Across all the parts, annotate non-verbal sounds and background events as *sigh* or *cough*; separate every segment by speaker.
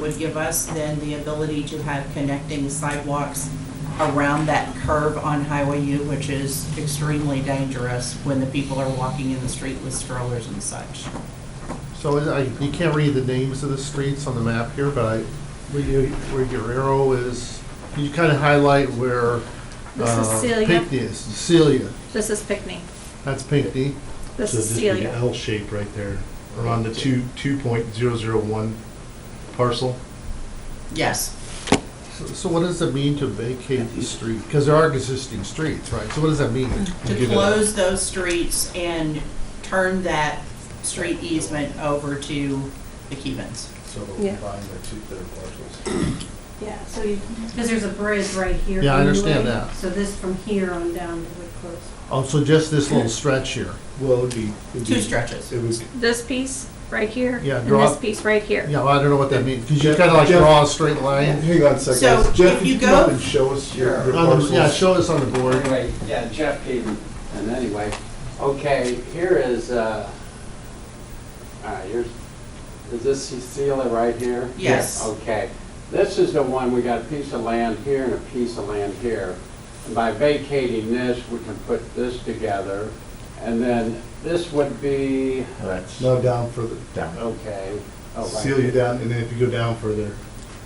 Speaker 1: would give us then the ability to have connecting sidewalks around that curve on Highway U, which is extremely dangerous when the people are walking in the street with strollers and such.
Speaker 2: So is- I, you can't read the names of the streets on the map here, but I, where you, where your arrow is, can you kind of highlight where?
Speaker 3: This is
Speaker 2: uh,
Speaker 3: Celia.
Speaker 2: Pinckney is, Celia,
Speaker 3: This is Pickney.
Speaker 2: that's Pinckney.
Speaker 3: This
Speaker 4: So
Speaker 3: is
Speaker 4: this would be
Speaker 3: Celia.
Speaker 4: L shape right there, around the two, two point zero zero one parcel.
Speaker 1: Yes,
Speaker 2: So- So what does it mean to vacate the street? Because there are existing streets, right? So what does that mean?
Speaker 1: Mm. to
Speaker 4: Give it up.
Speaker 1: close those streets and turn that street easement over to the Kevens.
Speaker 5: So they'll
Speaker 3: Yeah.
Speaker 5: combine their two third parcels.
Speaker 6: Yeah, so you, because there's a bridge right here.
Speaker 2: Yeah, I understand
Speaker 6: anyway,
Speaker 2: that.
Speaker 6: So this from here on down to Wood Close.
Speaker 2: Oh, so just this little stretch here?
Speaker 5: Well, it'd be. it'd
Speaker 1: Two
Speaker 5: be-
Speaker 1: stretches.
Speaker 5: It was,
Speaker 3: This piece right here.
Speaker 2: Yeah,
Speaker 3: And
Speaker 2: draw-
Speaker 3: this piece right here.
Speaker 2: Yeah, well, I don't know what that means, because you
Speaker 5: Jeff-
Speaker 2: kind of like
Speaker 5: Jeff-
Speaker 2: draw a straight line.
Speaker 5: hang on a
Speaker 1: So,
Speaker 5: second,
Speaker 1: if
Speaker 5: Jeff,
Speaker 1: you
Speaker 5: you come up
Speaker 1: go-
Speaker 5: and show us your your
Speaker 2: On the-
Speaker 5: parcels.
Speaker 2: Yeah, show us on the
Speaker 7: Well,
Speaker 2: board.
Speaker 7: Anyway, yeah, Jeff gave me, and anyway, okay, here is, uh, all right, here's, is this Cecilia right here?
Speaker 1: Yes.
Speaker 7: Okay, this is the one, we got a piece of land here and a piece of land here. And By vacating this, we can put this together, and then this would be,
Speaker 8: That's
Speaker 4: No, down further,
Speaker 8: down.
Speaker 7: okay. oh, right.
Speaker 4: Celia down, and then if you go down further,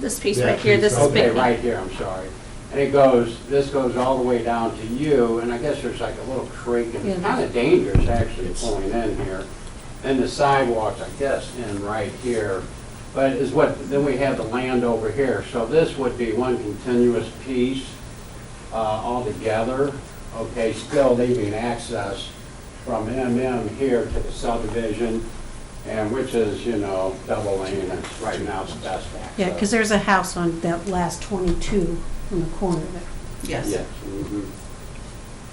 Speaker 3: This piece
Speaker 4: Yeah,
Speaker 3: right here, this is
Speaker 7: Okay,
Speaker 3: Pickney.
Speaker 7: right here, I'm sorry. And it goes, this goes all the way down to you, and I guess there's like a little creek, and it's
Speaker 3: Yeah.
Speaker 7: kind of dangerous actually pulling in here. And the sidewalks, I guess, in right here, but is what, then we have the land over here. So this would be one continuous piece uh, altogether, okay, still leaving access from MM here to the subdivision, and which is, you know, double lane, and right now it's best access.
Speaker 6: Yeah, because there's a house on that last 22 on the corner there.
Speaker 1: Yes.
Speaker 7: Yes. mhm.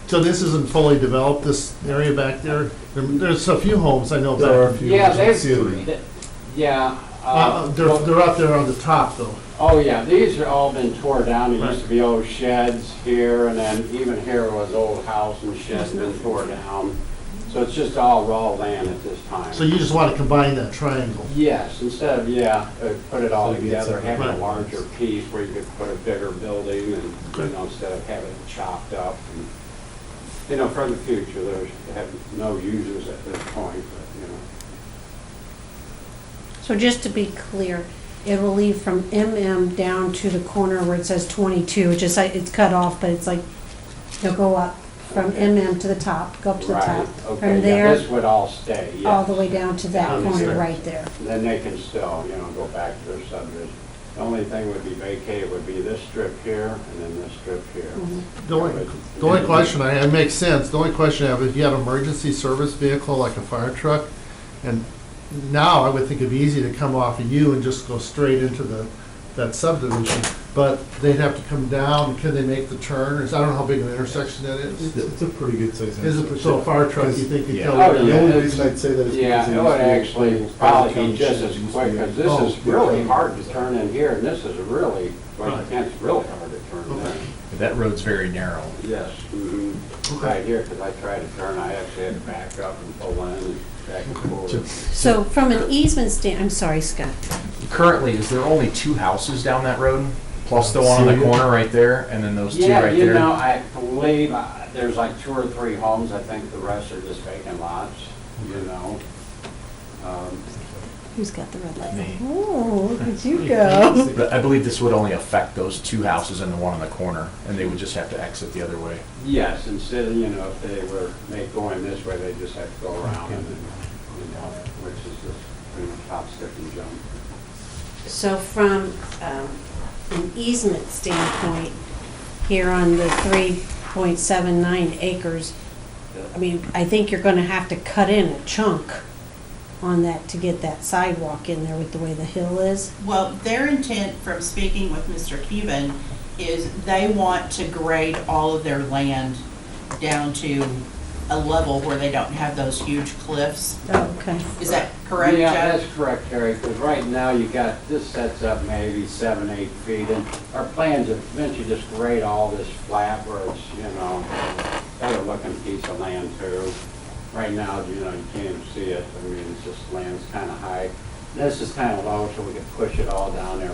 Speaker 2: So this isn't fully developed, this area back there? There- There's a few homes I know
Speaker 4: there are a
Speaker 2: back.
Speaker 4: few.
Speaker 7: Yeah,
Speaker 4: on
Speaker 7: they,
Speaker 4: Celia.
Speaker 7: th- yeah.
Speaker 2: Uh,
Speaker 7: uh,
Speaker 2: They're, they're up there on the top, though.
Speaker 7: Oh, yeah, these are all been tore down. There used
Speaker 2: Right.
Speaker 7: to be old sheds here, and then even here was old house and sheds been tore down. So it's just all raw land at this time.
Speaker 2: So you just want to combine that triangle.
Speaker 7: Yes, instead of, yeah, uh, put it all
Speaker 4: So it gets
Speaker 7: together,
Speaker 4: a-
Speaker 7: having a
Speaker 2: right.
Speaker 7: larger piece where you could put a bigger building and, you know, instead of having it chopped up. and You know, for the future, there's, have no users at this point, but, you know.
Speaker 6: So just to be clear, it will lead from MM down to the corner where it says 22, which is, like- it's cut off, but it's like, you'll go up from
Speaker 7: Okay.
Speaker 6: MM to the top, go up to the top.
Speaker 7: Right, okay,
Speaker 6: From
Speaker 7: yeah, this
Speaker 6: there,
Speaker 7: would all stay, yes.
Speaker 6: all the way down to that corner
Speaker 2: Understood.
Speaker 6: right there.
Speaker 7: Then they can still, you know, go back to their subdivision. The only thing would be vacated would be this strip here and then this strip here.
Speaker 6: Mhm.
Speaker 2: The only, the only question, I, it makes sense, the only question I have, if you had an emergency service vehicle like a fire truck, and now I would think it'd be easy to come off of you and just go straight into the, that subdivision, but they'd have to come down, can they make the turn, or is- I don't know how big of an intersection that
Speaker 4: It's
Speaker 2: is.
Speaker 4: it's a pretty good size.
Speaker 2: Is it, so a fire truck, you think could
Speaker 7: Oh,
Speaker 2: go?
Speaker 7: yeah.
Speaker 4: The only reason I'd say that is.
Speaker 7: Yeah,
Speaker 4: because
Speaker 7: it would
Speaker 4: used to be
Speaker 7: actually
Speaker 4: old
Speaker 7: probably
Speaker 4: town
Speaker 7: be just as
Speaker 4: sheds used to
Speaker 7: quick,
Speaker 4: be-
Speaker 7: because this
Speaker 2: Oh,
Speaker 7: is really hard to turn in here, and this is really,
Speaker 2: Right.
Speaker 7: like, it's really hard to turn
Speaker 2: Okay.
Speaker 7: in.
Speaker 8: That road's very narrow.
Speaker 7: Yes. mhm.
Speaker 4: Mm-hmm.
Speaker 7: Right here, because I tried to turn, I actually had to back up and pull in and back and forth.
Speaker 6: So from an easement stand, I'm sorry, Scott.
Speaker 8: Currently, is there only two houses down that road? Plus the one on the
Speaker 4: Celia.
Speaker 8: corner right there, and then those two
Speaker 7: Yeah,
Speaker 8: right
Speaker 7: you know,
Speaker 8: there?
Speaker 7: I believe uh, there's like two or three homes, I think the rest are just vacant lots, you know? Um,
Speaker 6: Who's got the red light?
Speaker 8: Me.
Speaker 6: Oh, look at
Speaker 2: *laughs*
Speaker 6: you go.
Speaker 8: But I believe this would only affect those two houses and the one on the corner, and they would just have to exit the other way.
Speaker 7: Yes, instead of, you know, if they were make going this way, they just have to go around and, then, you know, which is just pretty much hop, skip, and jump.
Speaker 6: So from um, an easement standpoint, here on the 3.79 acres, I mean, I think you're going to have to cut in a chunk on that to get that sidewalk in there with the way the hill is.
Speaker 1: Well, their intent from speaking with Mr. Keevan is they want to grade all of their land down to a level where they don't have those huge cliffs.
Speaker 6: Oh, okay.
Speaker 1: Is that correct, Jeff?
Speaker 7: Yeah, that's correct, Terry, because right now you got, this sets up maybe seven, eight feet, and our plans is eventually just grade all this flat where it's, you know, better looking piece of land too. Right now, you know, you can't even see it, I mean, it's just land's kind of high. This is kind of low, so we could push it all down there